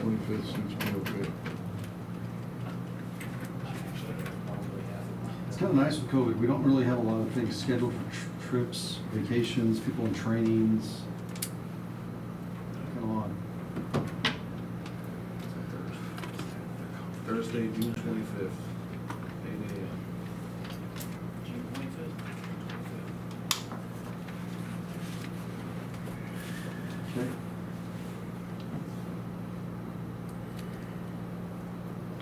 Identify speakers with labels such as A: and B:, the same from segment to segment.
A: Twenty-fifth suits me okay.
B: It's kind of nice with COVID, we don't really have a lot of things scheduled for tr- trips, vacations, people in trainings. Kind of odd.
A: Thursday, June twenty-fifth, eight AM.
C: June twenty-fifth.
B: Okay.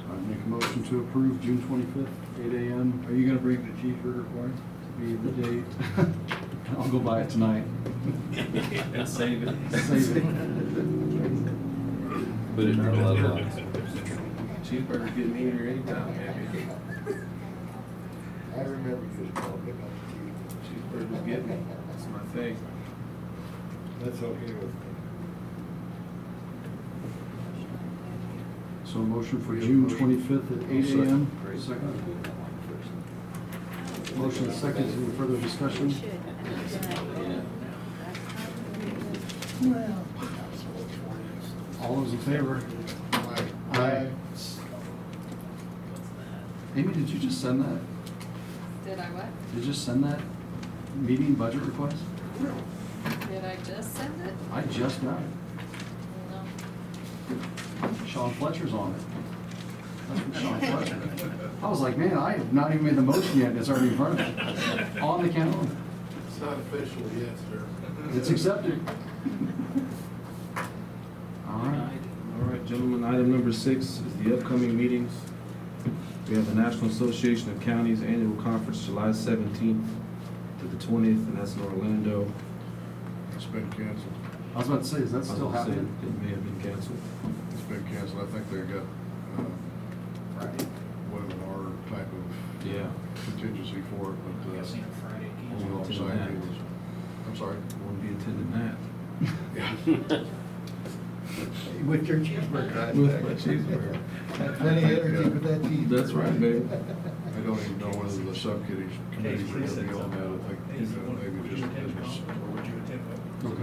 B: I make a motion to approve June twenty-fifth, eight AM
A: Are you gonna bring the cheeseburger for me?
B: to be the date. I'll go buy it tonight.
D: And save it.
B: Save it.
D: Put it in a glove box. Cheeseburger getting eaten anytime, baby.
E: I remember you was talking about
D: Cheeseburger's getting me. That's my thing.
E: That's okay with me.
B: So a motion for June twenty-fifth at eight AM. Second. Motion and second, any further discussion? All those in favor? Aye. Amy, did you just send that?
F: Did I what?
B: Did you just send that meeting budget request?
F: Did I just send it?
B: I just got it.
F: No.
B: Sean Fletcher's on it. That's from Sean Fletcher. I was like, man, I have not even made the motion yet, and it's already in front of me, on the calendar.
E: It's not official yet, sir.
B: It's accepted. All right.
D: All right, gentlemen, item number six is the upcoming meetings. We have the National Association of Counties Annual Conference, July seventeenth to the twentieth, and that's in Orlando.
A: It's been canceled.
B: I was about to say, is that still
D: I was gonna say,
B: happening?
D: It may have been canceled.
A: It's been canceled. I think they got, um, webinar type of
D: Yeah.
A: contingency for it,
C: I
A: but,
C: guess
A: uh,
C: on Friday.
A: on the
D: Won't
A: off
D: be
A: site, it
D: attending
A: was,
D: that.
A: I'm sorry.
D: Won't be attending that.
A: Yeah.
E: With your cheeseburger. I
D: With my
E: think.
D: cheeseburger.
E: Got Plenty of energy with that cheeseburger.
D: That's right, baby.
A: I don't even know whether the subcommittees, committees are gonna be on that. I think, uh, maybe just business. committee on- on that. All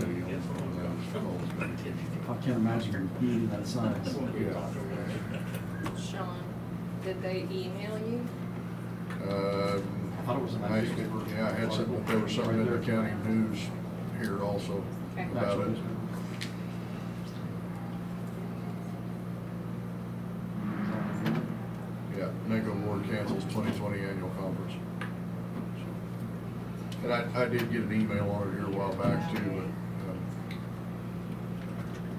A: is gonna be-
B: I can't imagine you're eating that size.
A: Yeah.
F: Sean, did they email you?
A: Um,
B: I thought it was an
A: I-
B: actual-
A: Yeah, I had some, there was something in the
B: Right there.
A: county news here also
F: Okay.
A: about it. Yeah, Nego Ward cancels twenty twenty annual conference. And I, I did get an email on it here a while back too, but, um,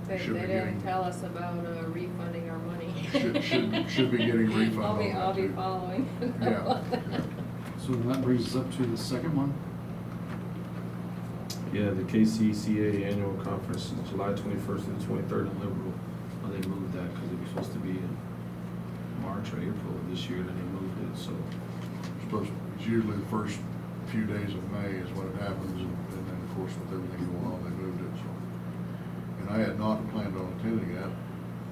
F: They,
A: Should
F: they
A: be
F: didn't
A: getting-
F: tell us about uh, refunding our money.
A: Should- should- should be getting refund
F: I'll be,
A: on that
F: I'll be
A: too.
F: following.
A: um, yeah. yeah.
B: So then that brings us up to the second one.
D: Yeah, the KCCA Annual Conference, July twenty-first through the twenty-third in Liberal. Well, they moved that because it was supposed to be in March or April of this year, then they moved it, so.
A: Supposed, it's usually the first few days of May is when it happens, and and then, of course, with everything going on, they moved it, so. And I had not planned on attending that,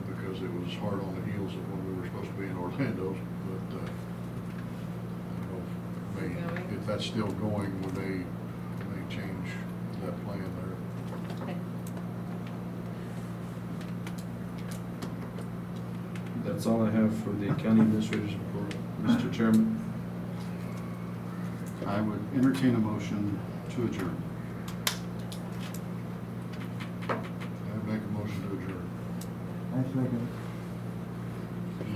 A: because it was hard on the heels of when we were supposed to be in Orlando, but, uh, I don't know if may- if that's still going, when they, when they change that plan there.
D: That's all I have for the county administrator's report, Mr. Chairman.
B: I would entertain a motion to adjourn.
A: I make a motion to adjourn.
E: I second.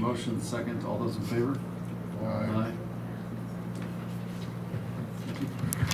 B: Motion second, all those in favor?
A: Aye.